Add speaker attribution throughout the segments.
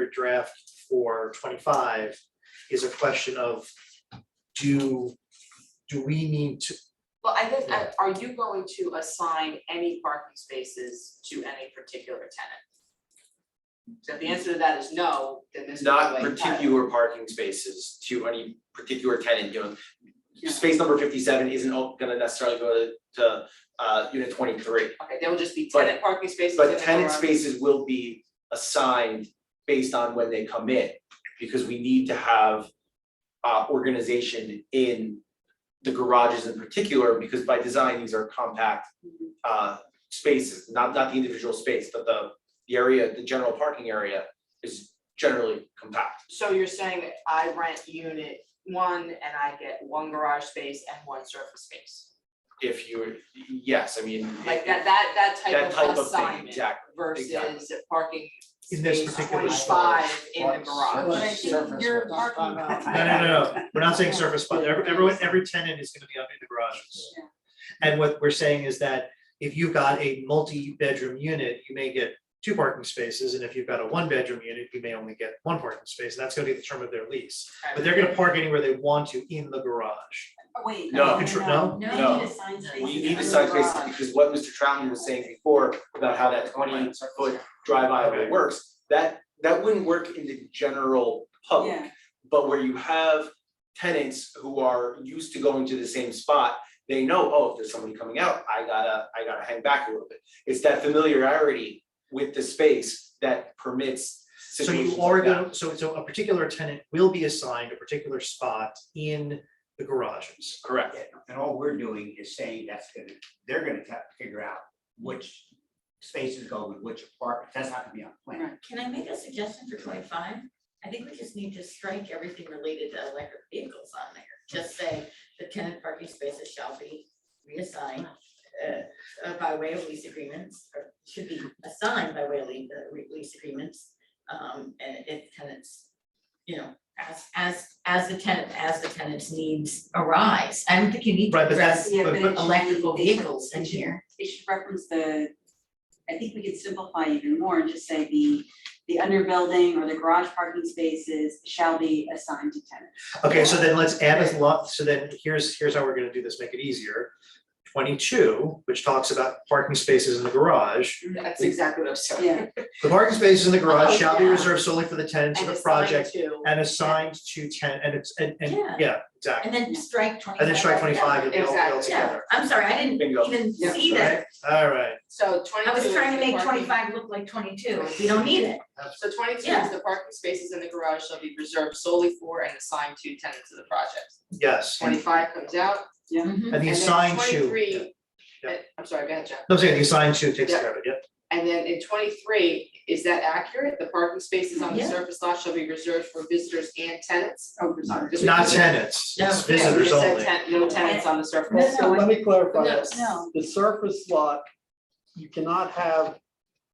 Speaker 1: current draft for twenty-five is a question of do, do we need to,
Speaker 2: Well, I think, uh, are you going to assign any parking spaces to any particular tenant? So if the answer to that is no, then this is the
Speaker 3: not
Speaker 2: way to have it.
Speaker 3: particular parking spaces to any particular tenant, you know.
Speaker 2: Yeah.
Speaker 3: Space number fifty-seven isn't all gonna necessarily go to, to, uh, unit twenty-three,
Speaker 2: Okay, there will just be
Speaker 3: But-
Speaker 2: tenant parking spaces. in
Speaker 3: but
Speaker 2: the
Speaker 3: tenant
Speaker 2: garage.
Speaker 3: spaces will be assigned based on when they come in. Because we need to have, uh, organization in the garages in particular, because by design, these are compact, uh, spaces, not, not the individual space, but the, the area, the general parking area is generally compact.
Speaker 2: So you're saying that I rent unit one and I get one garage space and one surface space?
Speaker 3: if you, were- yes, I mean.
Speaker 2: Like that, that, that
Speaker 3: That
Speaker 2: type of
Speaker 3: thing,
Speaker 2: assignment
Speaker 3: exactly.
Speaker 2: versus
Speaker 3: exactly.
Speaker 2: parking
Speaker 1: In this
Speaker 2: space
Speaker 1: particular
Speaker 2: twenty-five in the
Speaker 4: Surface.
Speaker 5: But
Speaker 2: garage.
Speaker 5: I think you're talking about.
Speaker 1: no, no, no, no, we're not saying surface, but every- everyone, every tenant is gonna be up in the garages.
Speaker 5: Yeah.
Speaker 1: And what we're saying is that if you've got a multi-bedroom unit, you may get two parking spaces, and if you've got a one-bedroom unit, you may only get one parking space, and that's gonna be the term of their lease. But they're gonna park anywhere they want to in the garage.
Speaker 5: Wait.
Speaker 3: No.
Speaker 1: Control- no?
Speaker 5: No,
Speaker 3: No.
Speaker 5: you need assigned spaces.
Speaker 3: We need
Speaker 5: under
Speaker 3: to sign
Speaker 5: garage.
Speaker 3: spaces
Speaker 2: um,
Speaker 3: because what Mr. Troutman was saying before about how that twenty foot drive aisle
Speaker 1: Okay.
Speaker 3: works, that, that wouldn't work in the general public.
Speaker 5: Yeah,
Speaker 3: But where you have tenants who are used to going to the same spot, they know, oh, if there's somebody coming out, I gotta, I gotta hang back a little bit. It's that familiarity with the space that permits
Speaker 1: So
Speaker 3: situations
Speaker 1: you are
Speaker 3: like that.
Speaker 1: gonna, so so a particular tenant will be assigned a particular spot in the garages.
Speaker 3: Correct.
Speaker 4: And all we're doing is saying that's gonna, they're gonna have to figure out which spaces go with which apartment, that's not gonna be on the plan.
Speaker 6: Right, can I make a suggestion for twenty-five? I think we just need to strike everything related to electric vehicles on there. Just say the tenant parking spaces shall be reassigned uh, uh, by way of lease agreements, or should be assigned by way of lea- uh, re- lease agreements. Um, and if tenants, you know, as, as, as the tenant, as the tenant's needs arise. I don't think you need to
Speaker 1: Right, but that's-
Speaker 6: address
Speaker 5: yeah, but
Speaker 1: But-
Speaker 5: it
Speaker 1: but-
Speaker 5: should be-
Speaker 6: electrical
Speaker 5: they should-
Speaker 6: vehicles in
Speaker 5: it should-
Speaker 6: here.
Speaker 5: It should reference the, I think we could simplify even more and just say the, the underbuilding or the garage parking spaces shall be assigned to tenants.
Speaker 1: Okay, so then let's add a lot, so then here's here's how we're gonna do this, make it easier. Twenty-two, which talks about parking spaces in the garage.
Speaker 2: That's exactly what I'm saying.
Speaker 5: Yeah,
Speaker 1: The parking spaces in the garage
Speaker 6: Oh,
Speaker 1: shall be
Speaker 6: yeah.
Speaker 1: reserved solely for the tenants of
Speaker 2: And
Speaker 1: the
Speaker 2: assigned
Speaker 1: project
Speaker 2: to-
Speaker 1: and assigned to ten, and it's, and and,
Speaker 6: Yeah.
Speaker 1: yeah, exactly.
Speaker 6: And then strike twenty-five.
Speaker 1: And then strike twenty-five and they all all
Speaker 2: Exactly.
Speaker 6: Yeah,
Speaker 1: together,
Speaker 6: I'm sorry, I didn't
Speaker 3: Bingo.
Speaker 6: even
Speaker 2: Yeah.
Speaker 6: see that.
Speaker 1: right? All right,
Speaker 2: So
Speaker 6: I
Speaker 2: twenty-two
Speaker 6: was
Speaker 2: is
Speaker 6: trying to
Speaker 2: the
Speaker 6: make
Speaker 2: parking-
Speaker 6: twenty-five look like twenty-two, we don't need it.
Speaker 2: So twenty-two
Speaker 6: Yeah.
Speaker 2: is the parking spaces in the garage shall be reserved solely for and assigned to tenants of the project.
Speaker 1: yes, and
Speaker 2: Twenty-five comes out,
Speaker 1: the
Speaker 2: Mm-hmm. and then
Speaker 1: assigned to. yeah.
Speaker 2: twenty-three.
Speaker 1: Yeah.
Speaker 2: uh, I'm sorry, go ahead, Jeff.
Speaker 1: No, I'm saying the assigned to takes
Speaker 2: Yeah.
Speaker 1: care of it, yep,
Speaker 2: And then in twenty-three, is that accurate? The parking spaces on the
Speaker 6: Yeah.
Speaker 2: surface lot shall be reserved for visitors and tenants?
Speaker 5: oh, I'm sorry.
Speaker 2: Just
Speaker 1: not
Speaker 2: because-
Speaker 1: tenants,
Speaker 6: No.
Speaker 1: it's
Speaker 6: Yeah,
Speaker 2: Yeah, we
Speaker 1: visitors
Speaker 2: just said
Speaker 1: only.
Speaker 2: ten- No tenants on the surface.
Speaker 5: So
Speaker 7: Let
Speaker 5: what-
Speaker 7: me clarify
Speaker 2: No.
Speaker 7: this.
Speaker 5: No,
Speaker 7: The surface lot, you cannot have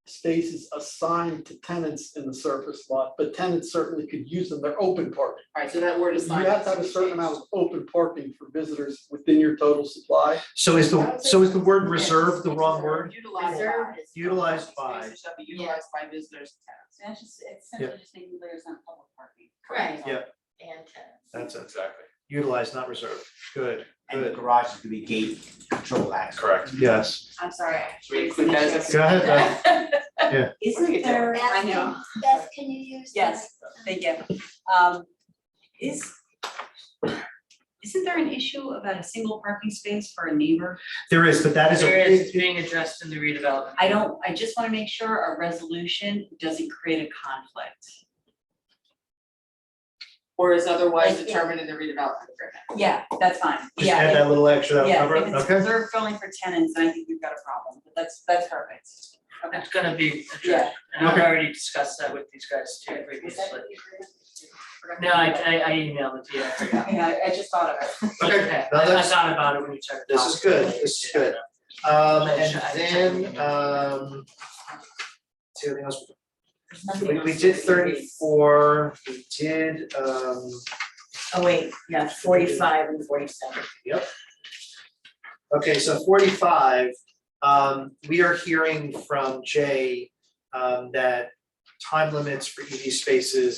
Speaker 7: spaces assigned to tenants in the surface lot, but tenants certainly could use them, they're open parking.
Speaker 2: Alright, so that word
Speaker 7: You
Speaker 2: is not.
Speaker 7: have to have a certain amount of open parking for visitors within your total supply.
Speaker 1: So is
Speaker 2: I
Speaker 1: the,
Speaker 2: would say
Speaker 1: so is the word
Speaker 6: it's-
Speaker 1: reserve the wrong word?
Speaker 2: Utilized
Speaker 6: Reserve
Speaker 2: by.
Speaker 6: is-
Speaker 1: Utilized by.
Speaker 2: Spaces Shall be utilized by visitors and tenants.
Speaker 5: so that's just, it's simply just making clear it's not public parking.
Speaker 6: Right.
Speaker 1: Yeah.
Speaker 6: And tenants.
Speaker 1: That's it,
Speaker 3: Exactly.
Speaker 1: utilized, not reserved, good,
Speaker 4: And the
Speaker 1: good,
Speaker 4: garage is gonna be gate control access.
Speaker 3: Correct.
Speaker 1: yes,
Speaker 5: I'm sorry.
Speaker 2: Should we include that as a-
Speaker 1: go ahead, uh, Beth.
Speaker 2: Look at
Speaker 5: Isn't
Speaker 2: that.
Speaker 5: there, I know.
Speaker 8: Beth, can you use? the
Speaker 5: Yes,
Speaker 8: microphone?
Speaker 5: Thank you. Um, is, isn't there an issue about a single parking space for a neighbor?
Speaker 1: There is, but that is a.
Speaker 9: There is, it's being addressed in the redevelopment.
Speaker 5: I don't, I just wanna make sure our resolution doesn't create a conflict.
Speaker 2: Or is otherwise
Speaker 5: Like, yeah.
Speaker 2: determined in the redevelopment agreement.
Speaker 5: Yeah, that's fine,
Speaker 1: Just add that little extra,
Speaker 5: Yeah,
Speaker 1: that'll cover
Speaker 5: if
Speaker 1: it,
Speaker 5: it's
Speaker 1: okay?
Speaker 5: reserved only for tenants, then I think we've got a problem, but that's, that's perfect.
Speaker 9: It's gonna be
Speaker 5: Yeah.
Speaker 9: addressed, and I've
Speaker 1: Okay.
Speaker 9: already discussed that with these guys too previously. No, I, I, I emailed it to you, I forgot.
Speaker 5: Yeah, I I just thought of it.
Speaker 9: Okay,
Speaker 1: now
Speaker 9: I- I
Speaker 1: that's-
Speaker 9: thought about it when you checked.
Speaker 1: This is good, this is good. Um, and
Speaker 9: I-
Speaker 1: then, um. See anything else?
Speaker 6: There's nothing
Speaker 1: We,
Speaker 6: else
Speaker 1: we
Speaker 6: to
Speaker 1: did
Speaker 6: read.
Speaker 1: thirty-four, we did, um,
Speaker 6: Oh, wait, yeah, forty-five and forty-seven.
Speaker 1: okay, so forty-five. Um, we are hearing from Jay, um, that time limits for EV spaces